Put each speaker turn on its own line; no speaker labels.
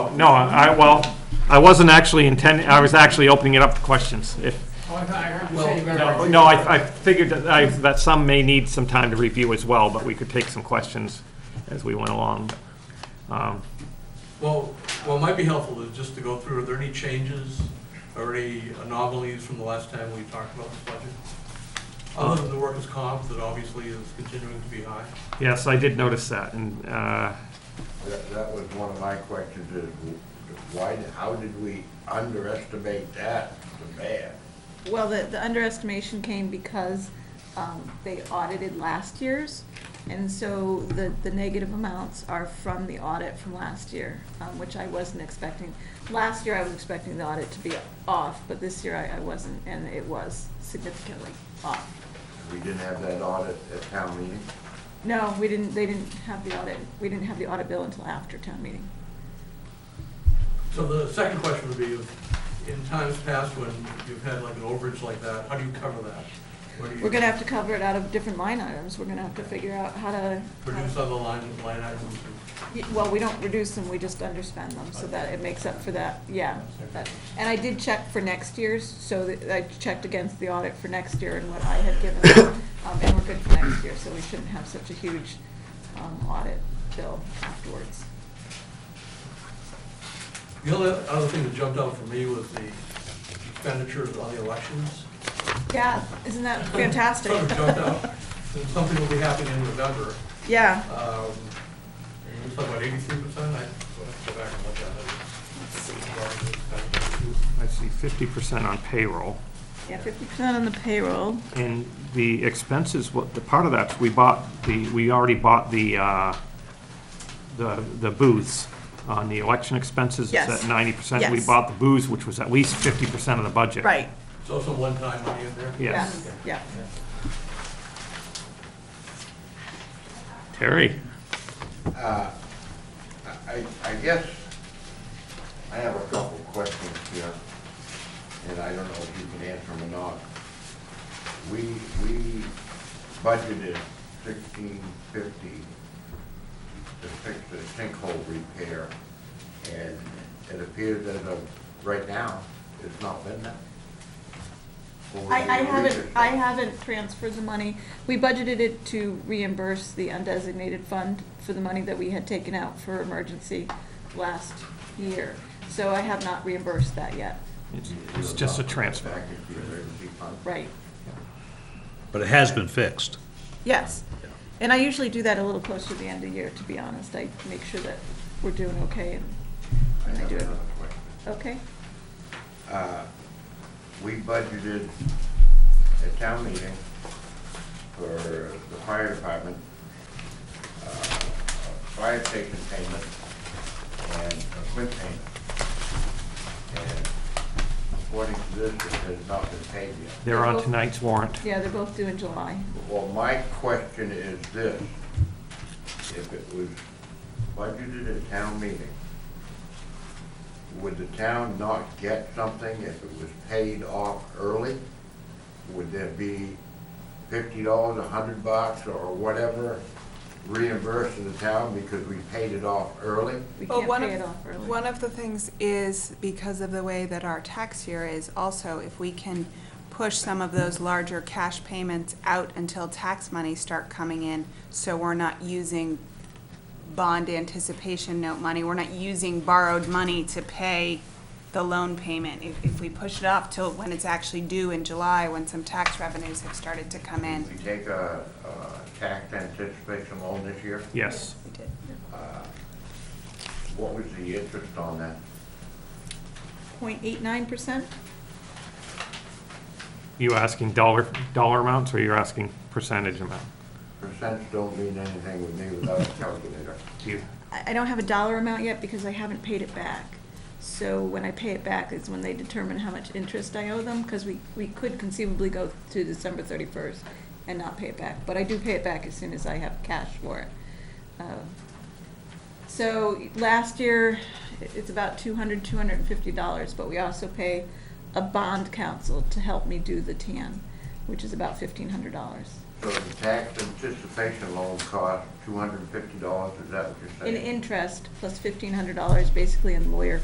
No, no, I, well, I wasn't actually intending, I was actually opening it up for questions. If,
Oh, I thought I heard you say you better.
no, no, I, I figured that, I, that some may need some time to review as well, but we could take some questions as we went along. Um,
Well, what might be helpful is just to go through, are there any changes or any anomalies from the last time we talked about this budget? Other than the workers' comp that obviously is continuing to be high.
Yes, I did notice that, and, uh,
That, that was one of my questions is, why, how did we underestimate that so bad?
Well, the, the underestimation came because um, they audited last year's, and so the, the negative amounts are from the audit from last year, um, which I wasn't expecting. Last year, I was expecting the audit to be off, but this year I, I wasn't, and it was significantly off.
We didn't have that audit at town meeting?
No, we didn't, they didn't have the audit, we didn't have the audit bill until after town meeting.
So the second question would be, in times past when you've had like an overage like that, how do you cover that? What do you
We're gonna have to cover it out of different line items, we're gonna have to figure out how to. how to-
Produce other line, line items.
Y- Well, we don't reduce them, we just underspend them, so that it makes up for that, yeah. that- And I did check for next year's, so that- I checked against the audit for next year and what I had given, them, um, and we're good for next year, so we shouldn't have such a huge um, audit bill afterwards.
The other, other thing that jumped out for me was the expenditures on the elections.
Yeah, isn't that fantastic?
Sort of jumped out. And Something will be happening in November.
Yeah,
Um, it looks like about eighty-three percent, I will have to go back and look at
I see fifty percent on payroll.
yeah, fifty percent on the payroll.
And the expenses, what, the part of that, we bought the, we already bought the, uh, the the booths on the election expenses.
Yes.
It's at ninety percent. We
Yes.
bought the booths, which was at least fifty percent of the budget.
Right,
it. It's also one-time money in there.
yeah,
Yes.
yeah.
Terry?
Uh, I, I guess I have a couple questions here, and I don't know if you can answer them or not. We, we budgeted sixteen fifty to fix the sinkhole repair, and it appears as of right now, it's not been that. Over
I,
the
I haven't,
years.
I haven't transferred the money. We budgeted it to reimburse the undesignated fund for the money that we had taken out for emergency last year. So I have not reimbursed that yet,
It's- It's just a transfer.
Back into the emergency fund.
right?
But it has been fixed.
Yes. And I usually do that a little closer to the end of the year, to be honest. I make sure that we're doing okay and,
I
I
have
do it.
another question.
okay?
Uh, We budgeted a town meeting for the fire department, uh, a fire station payment and a quit payment. And according to this, it has not been paid yet.
They're on tonight's warrant.
Yeah, they're both due in July.
Well, my question is this, if it was budgeted at town meeting, would the town not get something if it was paid off early? Would there be fifty dollars, a hundred bucks, or whatever reimbursed to the town because we paid it off early?
We
Well,
can't
one
pay
of-
it off early.
One of the things is, because of the way that our tax year is, also if we can push some of those larger cash payments out until tax money start coming in, so we're not using bond anticipation note money, we're not using borrowed money to pay the loan payment. If, if we push it off till when it's actually due in July, when some tax revenues have started to come in.
We take a, a tax anticipation loan this year, Uh,
Yes.
what was the interest on that?
Point eight nine percent?
You asking dollar, dollar amounts, or you're asking percentage amount?
Percents don't mean anything with me without a calculator.
Do you-
I I don't have a dollar amount yet because I haven't paid it back. So when I pay it back is when they determine how much interest I owe them, because we, we could conceivably go to December thirty-first and not pay it back, but I do pay it back as soon as I have cash for it. Um, So last year, i- it's about two hundred, two hundred and fifty dollars, but we also pay a bond counsel to help me do the tan, which is about fifteen hundred dollars.
So the tax anticipation loan cost two hundred and fifty dollars, is that what you're
In
saying?
interest, plus fifteen hundred dollars basically in lawyer